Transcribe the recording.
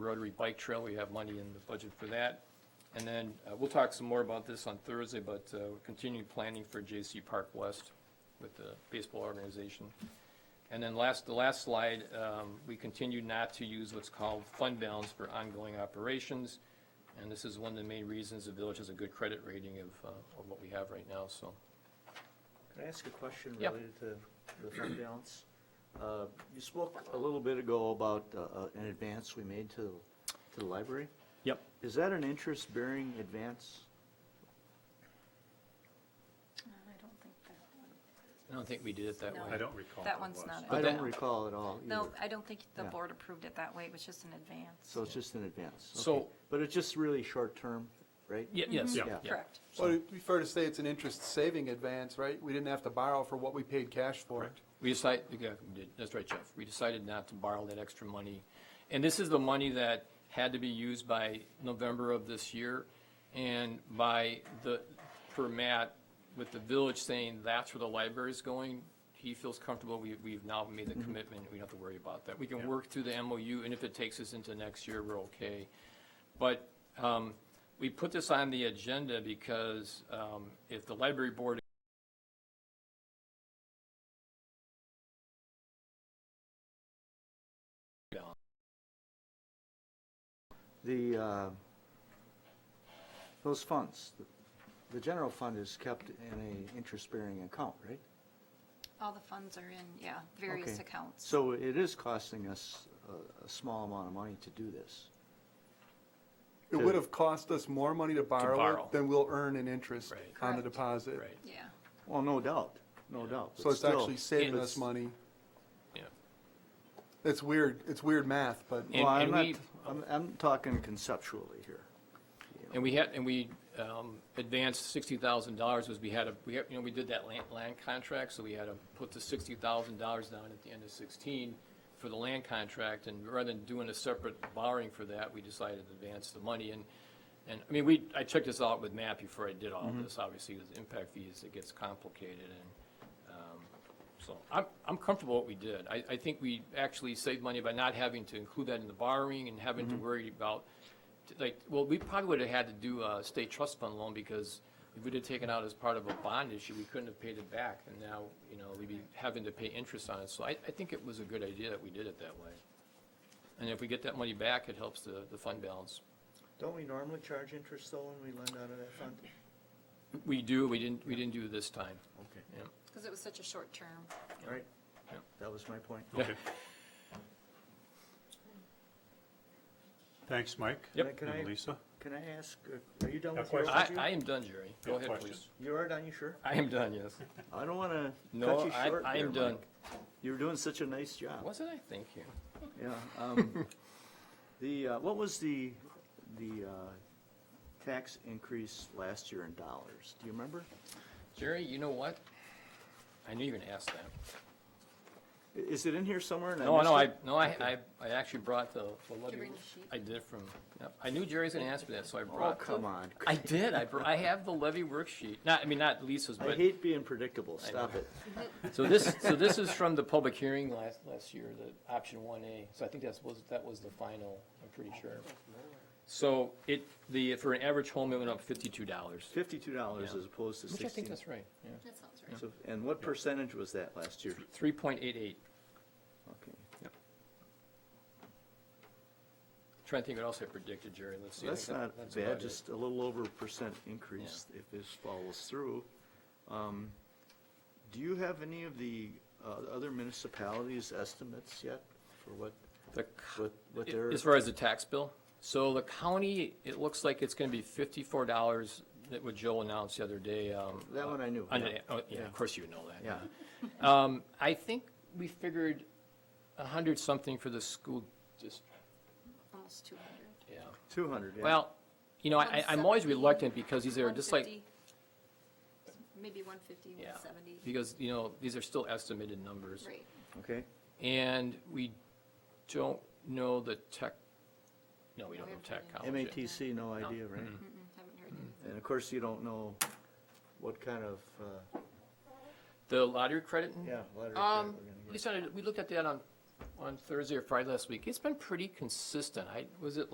Rotary Bike Trail, we have money in the budget for that. And then, uh, we'll talk some more about this on Thursday, but uh, we're continuing planning for J.C. Park West with the baseball organization. And then last, the last slide, um, we continue not to use what's called fund balance for ongoing operations. And this is one of the main reasons the village has a good credit rating of, uh, of what we have right now, so. Can I ask a question Yep. related to the fund balance? Uh, You spoke a little bit ago about uh, uh, an advance we made to, to the library. Yep. Is that an interest-bearing advance? I don't think that one. I don't think we did it that No. way. I don't recall. That what it one's was. not it. I But don't that- recall at all either. No, I don't think the Yeah. board approved it that way, it was just an advance. So it's just an advance. okay. So- But it's just really short-term, right? Ye- Yes. Yeah. yeah. Correct. Well, it'd be fair to say it's an interest-saving advance, right? We didn't have to borrow for what we paid cash for. We decided, yeah, we did. that's right, Jeff. We decided not to borrow that extra money. And this is the money that had to be used by November of this year. And by the, per Matt, with the village saying that's where the library is going, he feels comfortable. We, we've now made the commitment. We don't have to worry about that. We can work through the MOU and if it takes us into next year, we're okay. But um, we put this on the agenda because um, if the library board The, uh, those funds, the general fund is kept in a interest-bearing account, right? All the funds are in, yeah, various Okay. accounts. So it is costing us a, a small amount of money to do this. It would have cost us more money to borrow borrow. it than we'll earn in interest Right. on the Correct. deposit. Right, Yeah, Well, no doubt, no doubt. So it's actually saving And- us money. yeah. It's weird, it's weird math, but And- Well, I'm and not, we- I'm, I'm talking conceptually here. And we had, and we um, advanced sixty thousand dollars, was we had a, we, had- you know, we did that land, land contract, so we had to put the sixty thousand dollars down at the end of sixteen for the land contract, and rather than doing a separate borrowing for that, we decided to advance the money, and, and, I mean, we, I checked this out with Matt before I did all of this, obviously, with impact fees, it gets complicated, and, um, so, I'm, I'm comfortable with what we did. I, I think we actually saved money by not having to include that in the borrowing and having to worry about, like, well, we probably would have had to do a state trust fund loan because if we'd have taken out as part of a bond issue, we couldn't have paid it back. And now, you know, we'd be having to pay interest on it. So I, I think it was a good idea that we did it that way. And if we get that money back, it helps the, the fund balance. Don't we normally charge interest though when we lend out of that fund? We do, we didn't, we didn't do this time. Okay, Yeah. because it was such a short term. all right. Yeah. That was my point. Okay. Thanks, Mike. Yep. Can I- And Lisa? Can I ask, uh, are you done Have with your I, overview? I am done, Jerry. Go Yeah, ahead, questions. please. You are done, you sure? I am done, yes. I don't want to cut No, you I, short I am there, done. Mike. You were doing such a nice job. Wasn't I? Thank you. Yeah. um, The, uh, what was the, the uh, tax increase last year in dollars? Do you remember? Jerry, you know what? I knew you were gonna ask that. I- Is it in here somewhere? and No, no, I, missed no, I, I, I actually brought the, the levy. bring the sheet? I did from, yep. I knew Jerry's gonna ask me that, so I it? Oh, brought. come on. I did, I, br- I have the levy worksheet, not, I mean, not Lisa's, I but, hate being predictable, stop it. so this, so this is from the public hearing last, last year, the option one A. So I think that's, was, that was the final, I'm pretty sure. So it, the, for an average home, it went up fifty-two dollars, Fifty-two dollars Yeah. as opposed to which I think sixteen. that's right, yeah. That sounds right. So- And what percentage was that last year? Three point eight eight. Okay. Trying to think what else I predicted, Jerry, let's see. I That's think that- not that's about bad, it. just a little over a percent increase if this follows through. Um, Do you have any of the uh, other municipalities' estimates yet for what, The what what their? As far as the tax bill, so the county, it looks like it's gonna be fifty-four dollars, that what Joe announced the other day, um. That one I knew, uh, on yeah. the- oh, yeah, of course you would know that. Yeah, Um, I think we figured a hundred something for the school district, Almost two hundred. yeah. two hundred, yeah. Well, you know, I, I'm always 170. reluctant because these are just like, Maybe one fifty, yeah. one seventy, Because, you know, these are still estimated numbers. right. Okay, And we don't know the tech, no, we don't We know haven't heard tech any. college. yet. MATC, no idea, right? Mm-hmm. Mm, Haven't heard anything. And of course, you don't know what kind of, uh, The lottery credit? yeah, letter that Um, we're gonna we get. started, we looked at that on on Thursday or Friday last week, it's been pretty consistent. I, was it